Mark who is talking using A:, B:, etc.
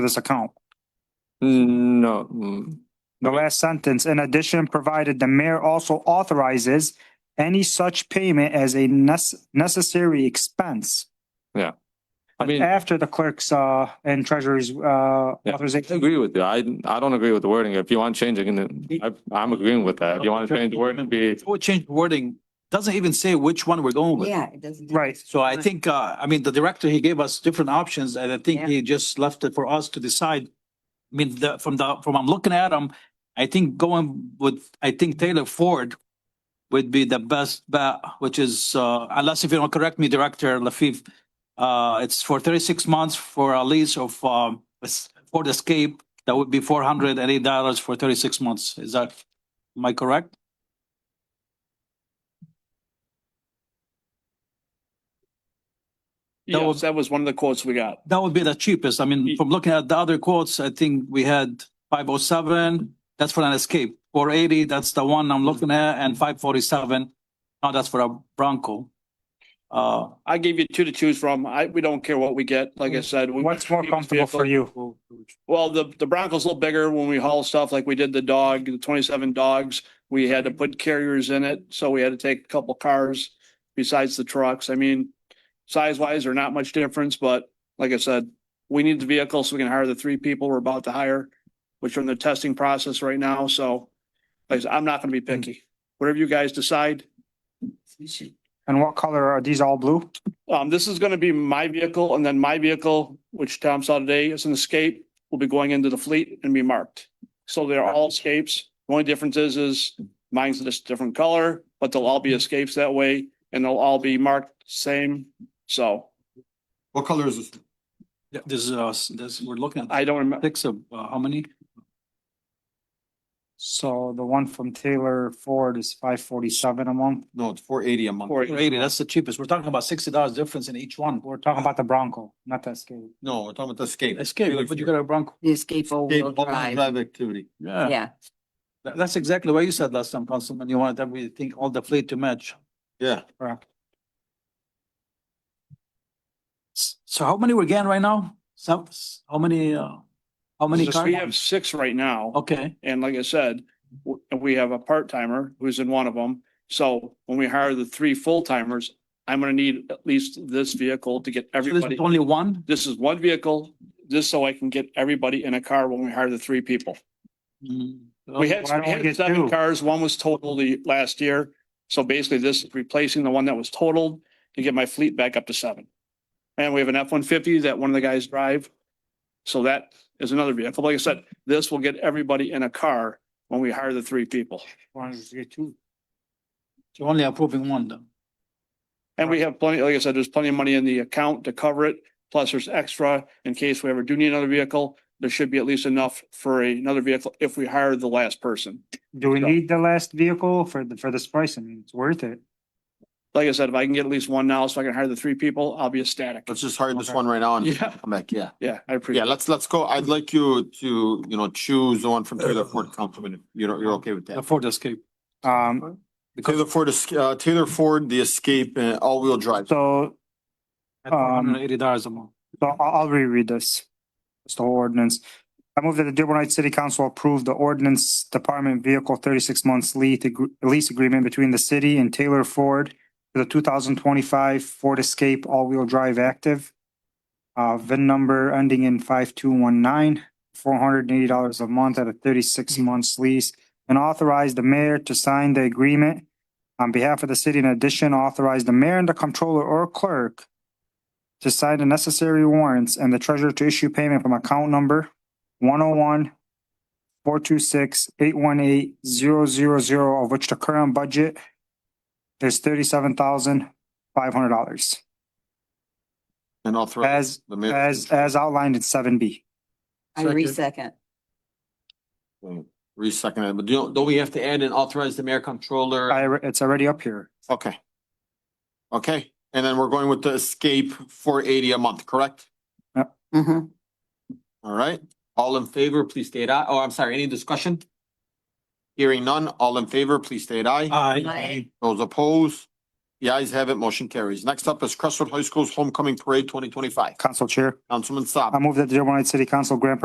A: this account.
B: No. mm,
A: The last sentence, in addition, provided the mayor also authorizes any such payment as a nes- necessary expense.
B: I mean, I
A: After the clerk's, uh, and treasurer's, uh,
B: Yeah.
A: authorization.
B: agree with you. I, I don't agree with the wording. If you want changing, it, I- I'm agreeing with that. If you want to change the wording, be,
C: Before we change the wording, doesn't even say which one we're going with.
D: Yeah, it doesn't.
A: Right.
C: So I think, uh, I mean, the director, he gave us different options and I think
D: Yeah.
C: he just left it for us to decide. I mean, the, from the, from I'm looking at them, I think going with, I think Taylor Ford would be the best bet, which is, uh, unless if you don't correct me, Director Lafif, uh, it's for thirty-six months for a lease of, um, es- Ford Escape, that would be four hundred and eight dollars for thirty-six months. Is that, am I correct? That
E: Yes,
C: was-
E: that was one of the quotes we got.
C: That would be the cheapest. I mean, from looking at the other quotes, I think we had five oh seven, that's for an escape. Four eighty, that's the one I'm looking at, and five forty-seven, now that's for a Bronco. Uh,
E: I gave you two to choose from. I, we don't care what we get. Like I said. we-
A: What's more comfortable for you?
E: Well, the, the Bronco's a little bigger when we haul stuff like we did the dog, the twenty-seven dogs. We had to put carriers in it, so we had to take a couple cars besides the trucks. I mean, size-wise, they're not much difference, but like I said, we need the vehicle so we can hire the three people we're about to hire, which are in the testing process right now, so like I said, I'm not gonna be picky. Whatever you guys decide,
A: And what color are these all blue?
E: Um, this is gonna be my vehicle and then my vehicle, which Tom saw today is an escape, will be going into the fleet and be marked. So they're all escapes. The only difference is, is mine's just different color, but they'll all be escapes that way and they'll all be marked same. So
F: What color is this?
C: th- this is, uh, s- this, we're looking at
E: I don't remember.
C: six of, uh, how many?
A: So the one from Taylor Ford is five forty-seven a month.
F: No, it's four eighty a month.
E: Or-
C: Four eighty, that's the cheapest. We're talking about sixty dollars difference in each one.
A: We're talking about the Bronco, not the Escape.
F: No, we're talking about the escape.
C: Escape, but you got a Bronco.
D: The escape all-wheel
F: Escape, all-wheel
D: drive.
F: drive activity.
C: Yeah,
D: Yeah,
C: tha- that's exactly what you said last time, Councilman. You wanted everything, all the fleet to match.
F: Yeah,
A: Correct.
C: S- So how many we're getting right now? Some, s- how many, uh, how many
E: Just- We have
C: cars?
E: six right now.
C: Okay,
E: And like I said, w- we have a part timer who's in one of them. So when we hire the three full timers, I'm gonna need at least this vehicle to get
C: so this
E: everybody.
C: is only one?
E: this is one vehicle, just so I can get everybody in a car when we hire the three people.
C: Mm.
E: We had,
A: Why don't
E: we
A: we
E: had
A: get
E: seven
A: two?
E: cars, one was totaled the last year. So basically this is replacing the one that was totaled to get my fleet back up to seven. And we have an F one fifty that one of the guys drive. So that is another vehicle. Like I said, this will get everybody in a car when we hire the three people.
A: Wanted to get two.
C: You're only approving one though.
E: And we have plenty, like I said, there's plenty of money in the account to cover it. Plus there's extra in case we ever do need another vehicle. There should be at least enough for a- another vehicle if we hire the last person.
A: Do we need the last vehicle for the, for this price? I mean, it's worth it.
E: Like I said, if I can get at least one now so I can hire the three people, I'll be ecstatic.
F: let's just hire this
A: Okay.
F: one right now and
E: Yeah,
F: come back, yeah.
E: yeah, I
F: Yeah,
E: appreciate it.
F: let's, let's go. I'd like you to, you know, choose the one from Taylor Ford, Councilman, if you're, you're okay with
C: The
F: that.
C: Ford Escape.
A: Um,
F: Taylor Ford, Esca- uh, Taylor Ford, the escape and all-wheel drive.
A: so
C: At four hundred
A: Um,
C: and eighty dollars a month.
A: So I'll, I'll reread this. It's the whole ordinance. I move that the Dearborn Heights City Council approve the ordinance department vehicle thirty-six months lease, agr- lease agreement between the city and Taylor Ford for the two thousand twenty-five Ford Escape all-wheel drive active. Uh, VIN number ending in five-two-one-nine, four hundred and eighty dollars a month at a thirty-six months lease. And authorize the mayor to sign the agreement on behalf of the city. In addition, authorize the mayor and the comptroller or clerk to sign the necessary warrants and the treasurer to issue payment from account number one oh one four two six eight one eight zero zero zero, of which the current budget is thirty-seven thousand five hundred dollars,
F: And authorize
A: as,
F: the mayor.
A: as, as outlined in seven B.
D: I re-second.
F: Resecond it, but don't, don't we have to add and authorize the mayor controller?
A: I, it's already up here.
F: Okay. Okay, and then we're going with the escape four eighty a month, correct?
D: Mhm.
F: All right, all in favor, please state aye. Oh, I'm sorry, any discussion? Hearing none, all in favor, please state aye.
C: Aye.
D: Aye.
F: Those opposed, The ayes have it, motion carries. Next up is Crestwood High School's Homecoming Parade twenty twenty-five.
A: Council Chair,
F: Councilman Saab.
A: I move that the Dearborn Heights City Council grant